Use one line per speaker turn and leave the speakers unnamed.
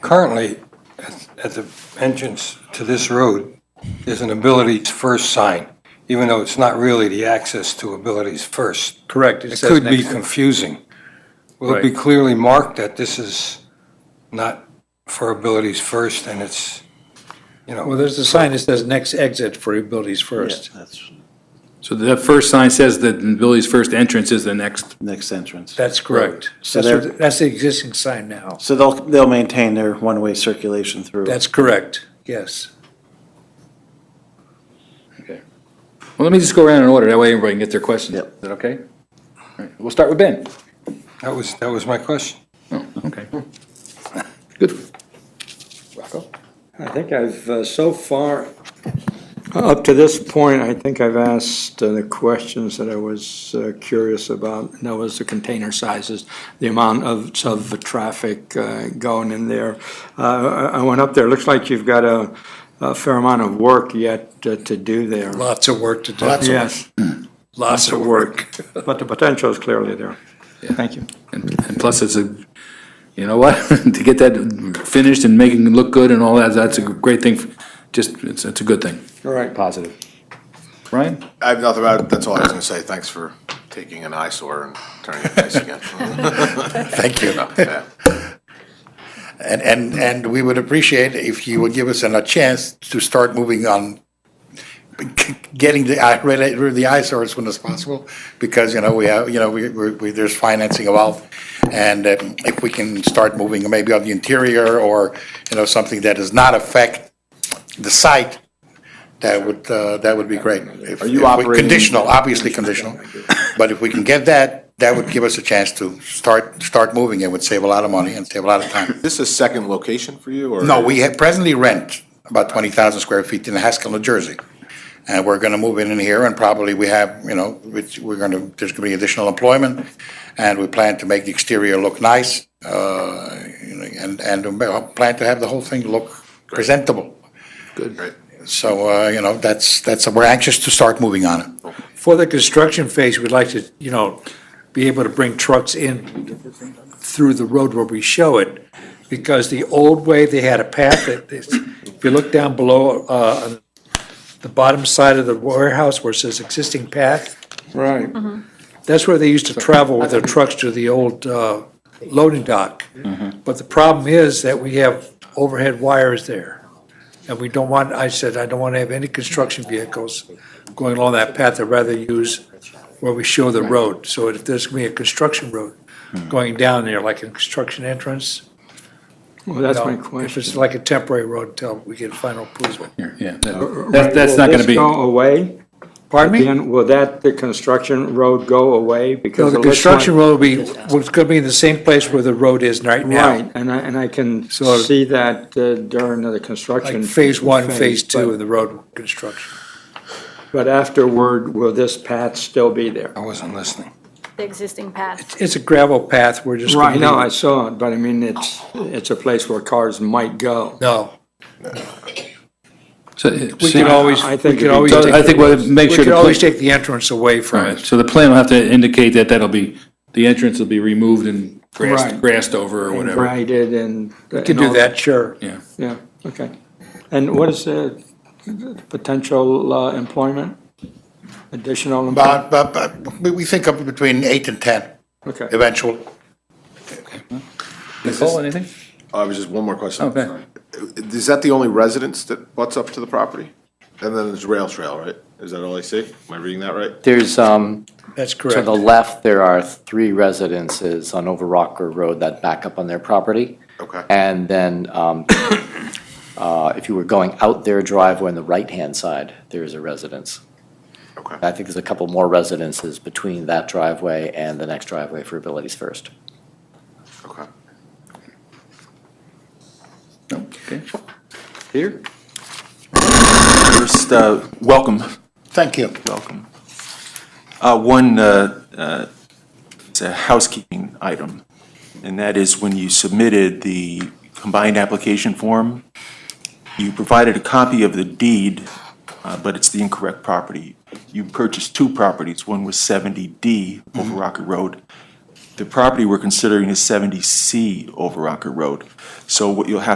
currently, at- at the entrance to this road, there's an Abilities First sign, even though it's not really the access to Abilities First.
Correct.
It
says
could be
next-
confusing. Will it be clearly marked that this is not for Abilities First and it's, you
Well,
know,
there's a sign that says next exit for abilities first.
So the first sign says that Billy's first entrance is the next,
next entrance.
That's correct.
So
That's,
there-
what- that's the existing sign now.
So they'll, they'll maintain their one-way circulation through.
That's correct, yes.
well, let me just go around in order, that way everybody can get their questions.
Yep.
Is that okay? All right, we'll start with Ben.
that was, that was my question.
Okay. Good. Rocco?
I think I've, uh, so far, up to this point, I think I've asked uh, the questions that I was uh, curious about. And that was the container sizes, the amount of, of the traffic uh, going in there. Uh, I I went up there, looks like you've got a a fair amount of work yet uh, to do there.
Lots of work to do.
Yes,
Lots of work.
but the potential is clearly there. Thank you.
And and plus, it's a, you know what, to get that finished and making it look good and all that, that's a great thing, for- just, it's, it's a good thing.
All right.
Positive. Ryan?
I have nothing about it. That's all I was going to say. Thanks for taking an eyesore and turning it nice again.
Thank you.
Yeah.
And, and, and we would appreciate if you would give us a chance to start moving on, getting the, eye- rid of rid of the eyesore as soon as possible, because, you know, we have, you know, we, we, we- there's financing involved. And um, if we can start moving maybe on the interior or, you know, something that does not affect the site, that would, uh, that would be great. If-
Are you
if we-
operating-
Conditional, obviously conditional. But if we can get that, that would give us a chance to start, start moving. It would save a lot of money and save a lot of time.
Is this a second location for you or?
No, we ha- presently rent about 20,000 square feet in Haskell, New Jersey. And we're going to move in in here and probably we have, you know, which we're going to, there's going to be additional employment. And we plan to make the exterior look nice, uh, you know, and, and we plan to have the whole thing look presentable.
Great.
So, uh, you know, that's, that's, we're anxious to start moving on it.
For the construction phase, we'd like to, you know, be able to bring trucks in through the road where we show it, because the old way, they had a path that, if you look down below, uh, on the bottom side of the warehouse where it says existing path, Mm-hmm.
Right.
That's where they used to travel with their trucks to the old uh, loading dock. But the problem is that we have overhead wires there. And we don't want, I said, I don't want to have any construction vehicles going along that path. I'd rather use where we show the road. So if there's going to be a construction road going down there, like a construction entrance.
Well, that's
no.
my
If
question.
it's like a temporary road until we get final approval.
Yeah, that- that's, that's not gonna be,
Will this go away?
Pardon me?
Again, will that, the construction road go away?
No,
Because
the
it looks like-
construction road will be, well, it's going to be in the same place where the road is right now.
Right, and I, and I can
So-
see that uh, during the construction.
Like phase one, phase two,
but-
and the road construction.
But afterward, will this path still be there?
I wasn't listening.
the existing path.
It's a gravel path, we're just. gonna
Right, no,
leave-
I saw it, but I mean, it's, it's a place where cars might go.
No,
so,
we could
so
always,
I
we
think it'd be
could always,
better-
take-
I think we'll
we
make sure.
could
to
always take the entrance away
All
from
right,
it.
so the plan will have to indicate that that'll be, the entrance will be removed and grassed,
Right.
grassed over or whatever.
Graded and.
We could do that, sure.
Yeah, okay. And what is the potential uh, employment? Additional employment?
But, but, but we, we think of between eight and 10
Okay.
eventually.
Nicole, anything?
I was just one more question. Uh,
Okay.
Is that the only residence that butts up to the property? And then there's rail trail, right? Is that all I see? Am I reading that right?
There's, um,
That's
to
correct.
the left, there are three residences on Over Rocker Road that back up on their property.
Okay.
And then, um, uh, if you were going out their driveway on the right-hand side, there is a residence.
Okay.
I think there's a couple more residences between that driveway and the next driveway for Abilities First.
Okay.
No, okay.
Here?
First, uh, welcome,
Thank you.
welcome. Uh, One, uh, uh, it's a housekeeping item, and that is when you submitted the combined application form, you provided a copy of the deed, uh, but it's the incorrect property. You purchased two properties. One was 70D over Rocker Road. The property we're considering is 70C over Rocker Road. So what you'll have